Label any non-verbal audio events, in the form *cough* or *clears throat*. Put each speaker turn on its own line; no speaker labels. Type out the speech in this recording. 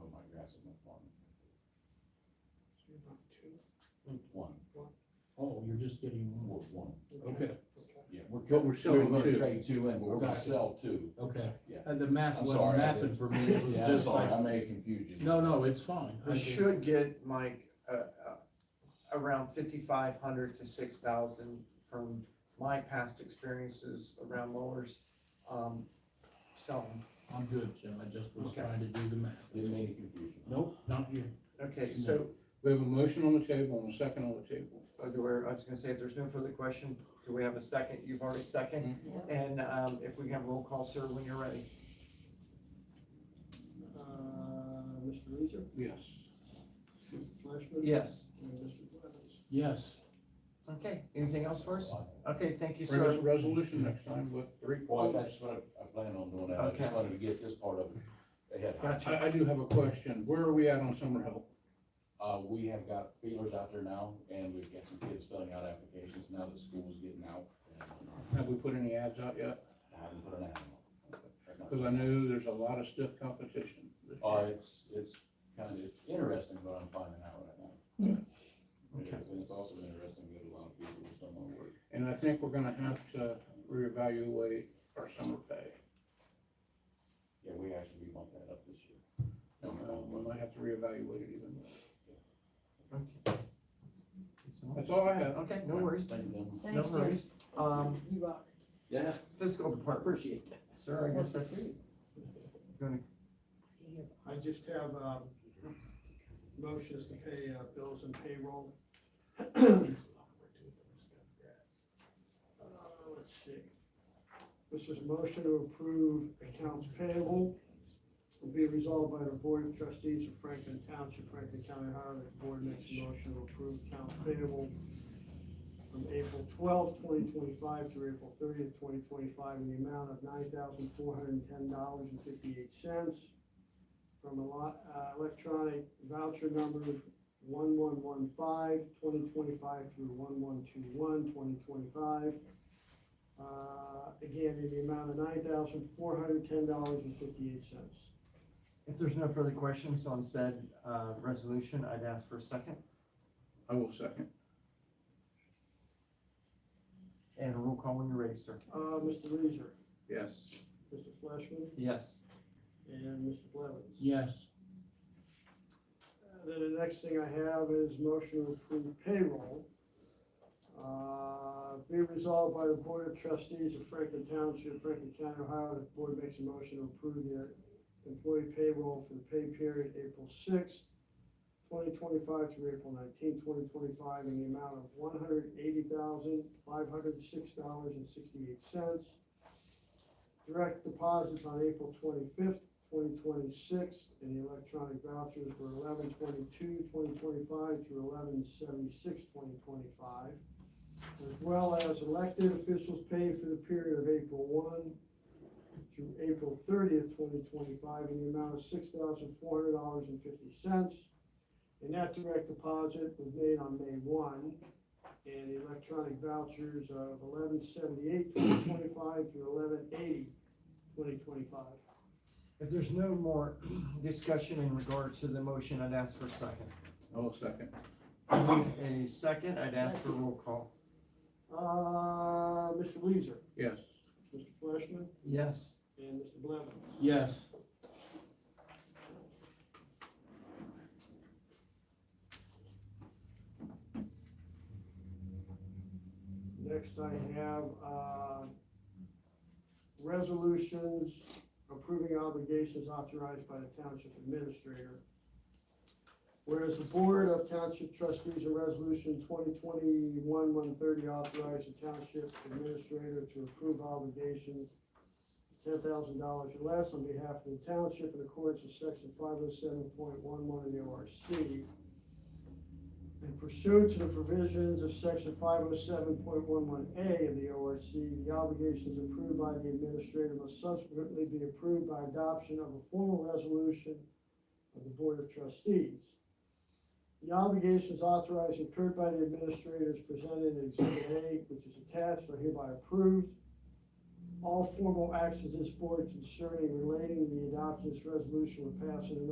Oh, passes no problem.
So you want two?
One,
Oh, you're just getting one.
or one,
Okay,
Okay.
yeah, we're,
But we're
we're
selling
gonna
two.
trade two in, but we're gonna
Gotcha.
sell two.
okay.
Yeah.
And the math
I'm
wasn't
sorry, I
mathing
did.
for
*laughs*
me, it was
Yeah, I'm
just
sorry,
like,
I may have confused you.
no, no, it's fine. I
We
just-
should get Mike, uh, uh, around fifty-five hundred to six thousand from my past experiences around mowers, um, selling.
I'm good, Jim, I just was
Okay.
trying to do the math.
It may have confused you.
Nope, not you.
Okay, so,
We have a motion on the table and a second on the table.
uh, do we- I was gonna say, if there's no further question, do we have a second? You've already seconded. And, um, if we can have roll call, sir, when you're ready.
Uh, Mr. Leeser,
Yes.
Mr. Fleishman?
Yes.
And Mr. Blevins?
Yes,
Okay, anything else for us? Okay, thank you,
Bring us a
sir.
resolution next time with three
Well,
quotes.
that's what I, I plan on doing, that. I just
Okay.
wanted to get this part of it ahead.
Gotcha.
I, I do have a question. Where are we at on summer help?
Uh, we have got feelers out there now, and we've got some kids filling out applications now that school's getting out.
Have we put any ads out yet?
I haven't put an ad
Because I know there's a lot of stiff competition. this year.
Uh, it's, it's kind of, it's interesting what I'm finding out right now. It
Okay.
is, And it's also interesting that a lot of people just don't want to work.
And I think we're gonna have to reevaluate our summer pay.
Yeah, we actually, we bumped that up this year.
Uh, We might have to reevaluate it even more.
Okay.
That's all I have.
Okay, no worries,
Thank you.
no
Thanks, Jim.
worries. Um,
You are.
Yeah,
fiscal department,
appreciate that.
sir, I guess that's gonna
I just have, um, motions to pay, uh, bills and payroll. Uh, let's see. This is motion to approve accounts payable. Will be resolved by the Board of Trustees of Franklin Township, Franklin County, Ohio, that the board makes a motion to approve accounts payable from April twelfth, twenty twenty-five through April thirtieth, twenty twenty-five, in the amount of nine thousand four hundred and ten dollars and fifty-eight cents from a lot, uh, electronic voucher numbers one one one five, twenty twenty-five through one one two one, twenty twenty-five. Uh, again, in the amount of nine thousand four hundred ten dollars and fifty-eight cents.
If there's no further questions on said uh, resolution, I'd ask for a second
I will second.
and a roll call when you're ready, sir.
Uh, Mr. Leeser,
Yes.
Mr. Fleishman,
Yes.
and Mr. Blevins.
yes,
And Then the next thing I have is motion to approve payroll. Uh, Be resolved by the Board of Trustees of Franklin Township, Franklin County, Ohio, that the board makes a motion to approve the employee payroll for the pay period April sixth, twenty twenty-five through April nineteenth, twenty twenty-five, in the amount of one hundred eighty thousand, five hundred six dollars and sixty-eight cents. Direct deposits on April twenty-fifth, twenty twenty-six, and the electronic vouchers were eleven twenty-two, twenty twenty-five through eleven seventy-six, twenty twenty-five, as well as elected officials paid for the period of April one through April thirtieth, twenty twenty-five, in the amount of six thousand four hundred dollars and fifty cents. And that direct deposit was made on May one, and the electronic vouchers of eleven seventy-eight, twenty twenty-five through eleven eighty, twenty twenty-five.
If there's no more *clears throat* discussion in regards to the motion, I'd ask for
*clears throat*
a second.
I will second.
A second, I'd ask for a roll call.
Uh, Mr. Weezer,
Yes.
Mr. Fleishman,
Yes.
and Mr. Blevins.
yes.
Next I have, uh, resolutions approving obligations authorized by the township administrator. Whereas the Board of Township Trustees in Resolution twenty twenty-one one thirty authorized the township administrator to approve obligations ten thousand dollars or less on behalf of the township in accordance with section five oh seven point one one of the ORC. And pursuant to the provisions of section five oh seven point one one A of the ORC, the obligations approved by the administrator must subsequently be approved by adoption of a formal resolution of the Board of Trustees. The obligations authorized incurred by the administrators presented in Exhibit A, which is attached, are hereby approved. All formal actions this board concerning relating to the adoption of this resolution will pass in an